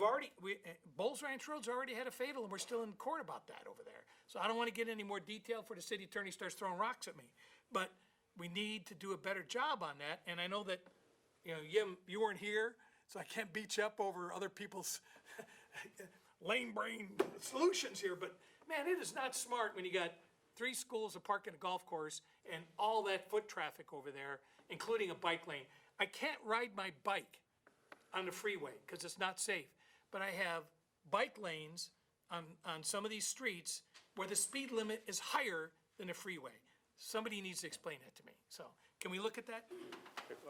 already, we, uh, Bulls Ranch Road's already had a fatal, and we're still in court about that over there. So I don't want to get any more detailed before the city attorney starts throwing rocks at me. But we need to do a better job on that, and I know that, you know, Yim, you weren't here, so I can't beat you up over other people's lane brain solutions here, but man, it is not smart when you got three schools, a park and a golf course, and all that foot traffic over there, including a bike lane. I can't ride my bike on the freeway because it's not safe. But I have bike lanes on, on some of these streets where the speed limit is higher than the freeway. Somebody needs to explain that to me. So can we look at that?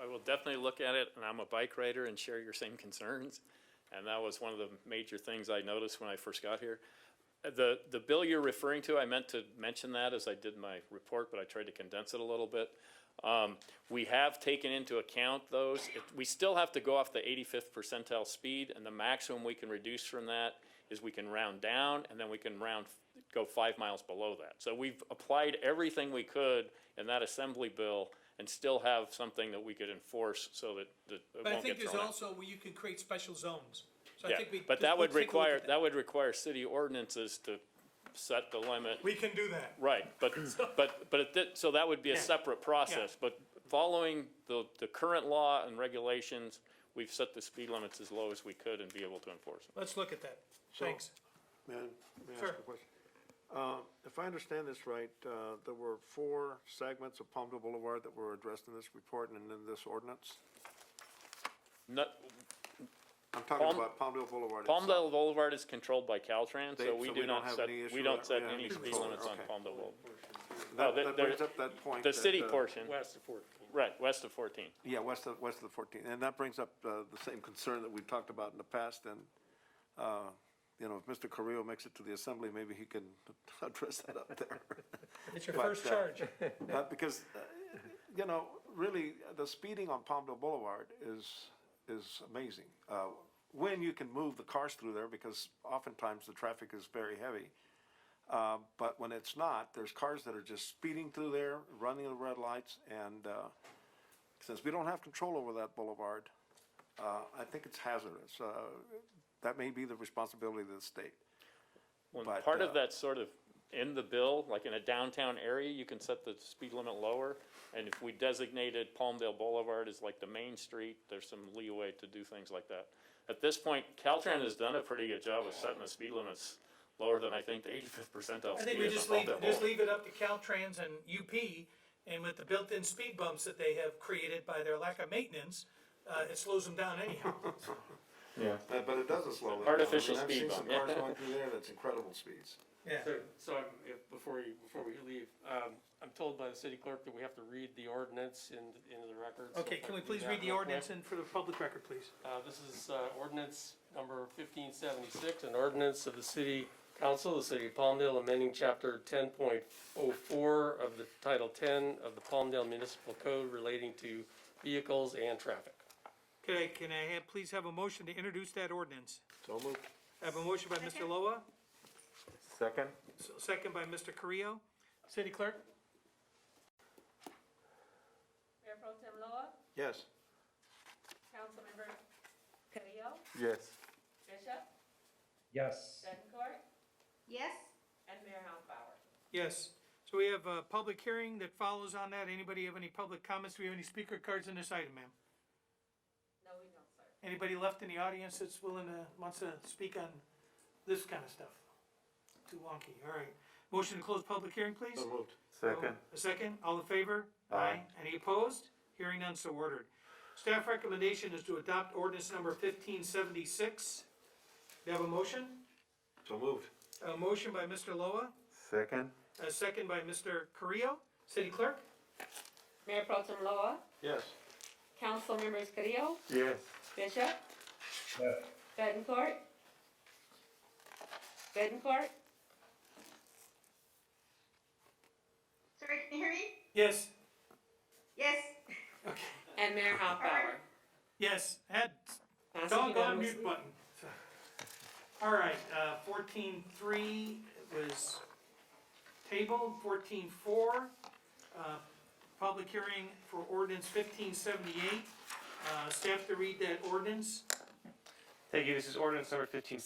I will definitely look at it, and I'm a bike rider and share your same concerns. And that was one of the major things I noticed when I first got here. Uh, The, the bill you're referring to, I meant to mention that as I did my report, but I tried to condense it a little bit. Um, we have taken into account those. It- We still have to go off the eighty-fifth percentile speed, and the maximum we can reduce from that is we can round down, and then we can round, go five miles below that. So we've applied everything we could in that assembly bill and still have something that we could enforce so that, that it But I won't think get there's thrown out. also where you can create special zones. So I Yeah, think we. but we'll that would take a look require, at that would require city ordinances to set the limit. We can do that. Right, but, but, but it, did- so that would be a Yeah. separate process, but following the, the current law and regulations, we've set the speed limits as low as we could and be able to enforce them. Let's look at that. Thanks. Man, may I Sure. ask a question? Uh, If I understand this right, uh, there were four segments of Palmdale Boulevard that were addressed in this report and in this ordinance? Not, I'm talking Palm- about Palmdale Boulevard. itself. Palmdale Boulevard is controlled by Caltrans, They- so we so do we don't not have set, any issue we don't with- set yeah, any it's speed controlled, limits on okay. Palmdale Boulevard. That- there- That brings there- up that point. The that, city uh, portion, West of fourteen. right, west of fourteen. Yeah, west of, west of the 14th, and that brings up uh, the same concern that we've talked about in the past, and, uh, you know, if Mr. Carrillo makes it to the assembly, maybe he can address that up there. It's your But, first uh, charge. Uh, Because, uh, you know, really, the speeding on Palmdale Boulevard is, is amazing. Uh, When you can move the cars through there, because oftentimes the traffic is very heavy. Uh, But when it's not, there's cars that are just speeding through there, running the red lights, and uh, since we don't have control over that boulevard, uh, I think it's hazardous. Uh, That may be the responsibility of the state. When But, part uh, of that sort of in the bill, like in a downtown area, you can set the speed limit lower. And if we designated Palmdale Boulevard as like the main street, there's some leeway to do things like that. At this point, Caltrans has done a pretty good job of setting the speed limits lower than I think the eighty-fifth percentile I speed think we is just on leave, Palmdale just Boulevard. leave it up to Caltrans and UP, and with the built-in speed bumps that they have created by their lack of maintenance, uh, it slows them down anyhow. Uh, But it doesn't slow them down. Artificial I mean, speed I've seen some bump, yeah. cars going through there that's incredible speeds. Yeah. So, so I'm, if, before you, before we leave, um, I'm told by the city clerk that we have to read the ordinance in, into the record. so Okay, if I can we do please that read the real quick. ordinance and for the public record, please? Uh, this is, uh, ordinance number fifteen seventy-six, an ordinance of the city council, of the city of Palmdale, amending chapter ten point oh four of the title ten of the Palmdale Municipal Code relating to vehicles and traffic. Can I, can I have, please have a motion to introduce that ordinance? So moved. I have a motion by Mr. Loa, Second? s- second by Mr. Carrillo. City Clerk? Mayor Pro Tem Loa, Yes. Councilmember Carrillo, Yes. Bishop, Yes. Bettencourt, Yes, and Mayor Hoffbauer. Yes. So we have a public hearing that follows on that. Anybody have any public comments? Do we have any speaker cards in this item, ma'am? No, we don't, sir. Anybody left in the audience that's willing to, wants to speak on this kind of stuff? Too wonky, all right. Motion to close public hearing, please? So moved. Second? Um, A second, all in favor? Aye. Any opposed? Hearing none, so ordered. Staff recommendation is to adopt ordinance number fifteen seventy-six. Do you have a motion? So moved. A motion by Mr. Loa, Second? a second by Mr. Carrillo. City Clerk? Mayor Pro Tem Loa, Yes. Councilmembers Carrillo, Yes. Bishop, Yes. Bettencourt, Bettencourt, sorry, can you hear me? Yes. Yes. and Mayor Hoffbauer. Yes, had, Passes doggone unanimously. mute button. All right, uh, fourteen-three was tabled, fourteen-four, uh, public hearing for ordinance fifteen seventy-eight. Uh, staff to read that ordinance. Thank you. This is ordinance number fifteen